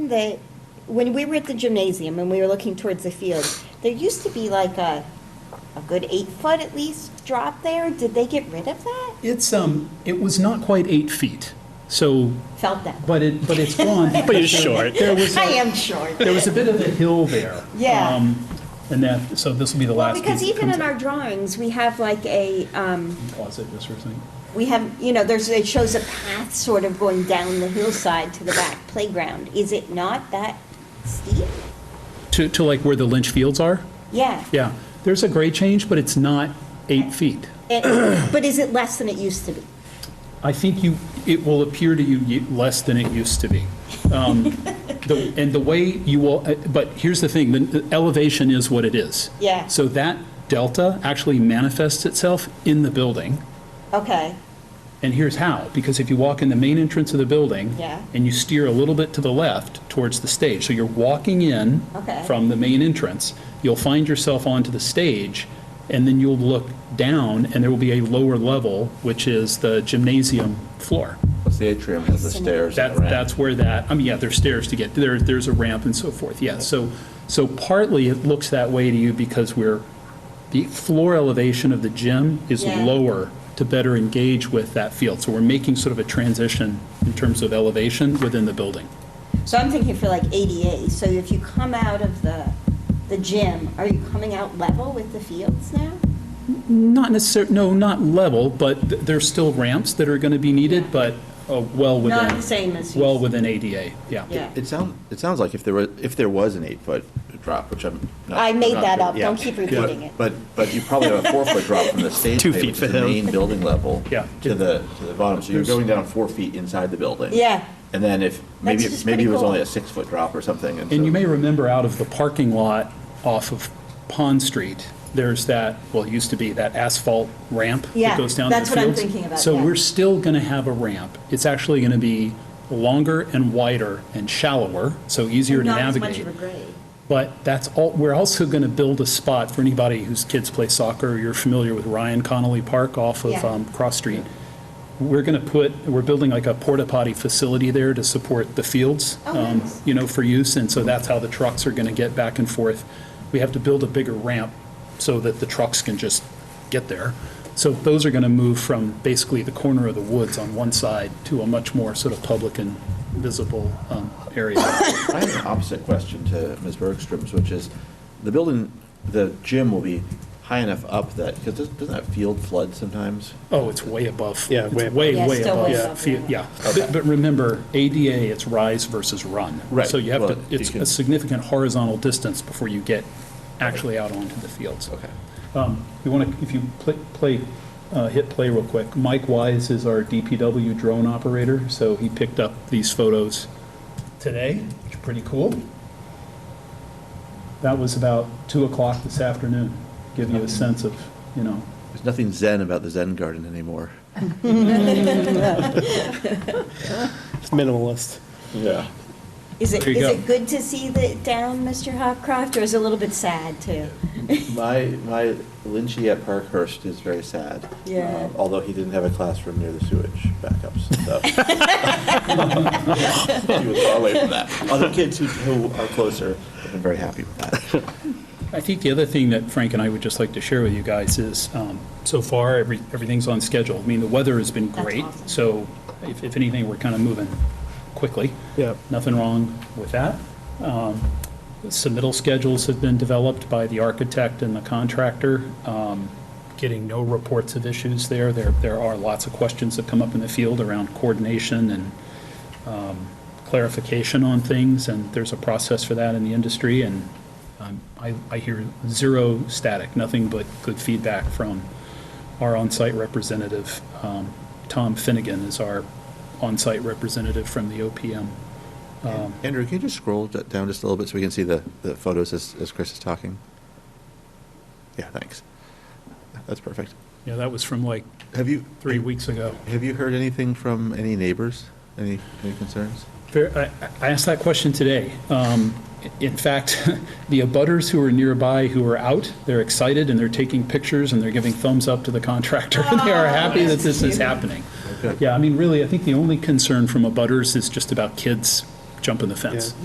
that, when we were at the gymnasium and we were looking towards the field, there used to be like a, a good eight foot at least drop there. Did they get rid of that? It's, um, it was not quite eight feet, so, Felt that. but it, but it's gone. But you're short. There was, I a- am short. there was a bit of a hill there. Yeah. um, And that, so this will be the Well, last piece. because that even comes in out. our drawings, we have like a, um, Pause it just for a second. we have, you know, there's, it shows a path sort of going down the hillside to the back playground. Is it not that steep? To, to like where the Lynch Fields are? Yeah. Yeah. There's a grade change, but it's not eight feet. And- But is it less than it used to be? I think you, it will appear to you ye- less than it used to be. Um, the- And the way you will, uh, but here's the thing, the- the elevation is what it is. Yeah. So that delta actually manifests itself in the building, Okay, and here's how. Because if you walk in the main entrance of the building. Yeah. And you steer a little bit to the left towards the stage, so you're walking in. Okay. From the main entrance, you'll find yourself onto the stage, and then you'll look down, and there will be a lower level, which is the gymnasium floor. Plus the atrium has the stairs and That, the ramp. that's where that, I mean, yeah, there's stairs to get, there, there's a ramp and so forth, yeah. So, so partly it looks that way to you because we're, the floor elevation of the gym is Yeah. lower to better engage with that field. So we're making sort of a transition in terms of elevation within the building. so I'm thinking for like ADA, so if you come out of the, the gym, are you coming out level with the fields now? Not necessar, no, not level, but th- there's still ramps that are going to be needed, but uh, well within. Not the same as you- Well within ADA, yeah. Yeah. It sounds, it sounds like if there was, if there was an eight-foot drop, which I'm not. I made not that sure- up. yeah. Don't keep repeating it. But, but you probably have a four-foot drop from the stage Two pay, feet which is for the him. main building level. Yeah. To the, to the bottom, so you're going down four feet inside the building. Yeah. And then if, maybe, just maybe it pretty was cool. only a six-foot drop or something, and so. And you may remember out of the parking lot off of Pond Street, there's that, well, it used to be that asphalt ramp Yeah, that goes down to the that's fields. what I'm thinking about, So yeah. we're still going to have a ramp. It's actually going to be longer and wider and shallower, so easier to Not as much navigate. of a grade. But that's all, we're also going to build a spot for anybody whose kids play soccer. You're familiar with Ryan Connolly Park off of Yeah. um, Cross Street. We're going to put, we're building like a porta potty facility there to support the fields, Oh, um, nice. you know, for use. And so that's how the trucks are going to get back and forth. We have to build a bigger ramp so that the trucks can just get there. So those are going to move from basically the corner of the woods on one side to a much more sort of public and visible um, area. I have an opposite question to Ms. Bergstrom's, which is, the building, the gym will be high enough up that, because doesn't that field flood sometimes? Oh, it's way above. Yeah, It's way above. Way, Yeah, way still way above. above, Fe- yeah. Yeah, but but remember, ADA, it's rise versus run. Right, So you have to, well, you it's can- a significant horizontal distance before you get actually out onto the fields. Okay. Um, You want to, if you pl- play, uh, hit play real quick, Mike Wise is our DPW drone operator, so he picked up these photos today, which are pretty cool. That was about 2 o'clock this afternoon, give you a sense of, you know, There's nothing zen about the Zen garden anymore. It's minimalist. Yeah. Is it, There is you go. it good to see the down, Mr. Hopcroft, or is it a little bit sad too? My, my Lynchy at Parkhurst is very sad. Yeah. Um, Although he didn't have a classroom near the sewage backups and stuff. He was far away from that. Other kids who, who are closer have been very happy with that. I think the other thing that Frank and I would just like to share with you guys is, um, so far, every, everything's on schedule. I mean, the weather has been That's great, awesome. so if, if anything, we're kind of moving quickly. Yeah. Nothing wrong with that. Um, Submittal schedules have been developed by the architect and the contractor. Um, Getting no reports of issues there. There, there are lots of questions that come up in the field around coordination and clarification on things, and there's a process for that in the industry, and um, I, I hear zero static, nothing but good feedback from our on-site representative. Um, Tom Finnegan is our on-site representative from the OPM. Andrew, can you just scroll d- down just a little bit so we can see the, the photos as, as Chris is talking? Yeah, thanks. That's perfect. Yeah, that was from like Have you? three weeks ago. Have you heard anything from any neighbors? Any, any concerns? Fair- I I asked that question today. Um, In fact, the abutters who are nearby, who are out, they're excited and they're taking pictures and they're giving thumbs up to the contractor. and They are happy that this is happening. Okay. Yeah, I mean, really, I think the only concern from abutters is just about kids jumping the fence. Yeah.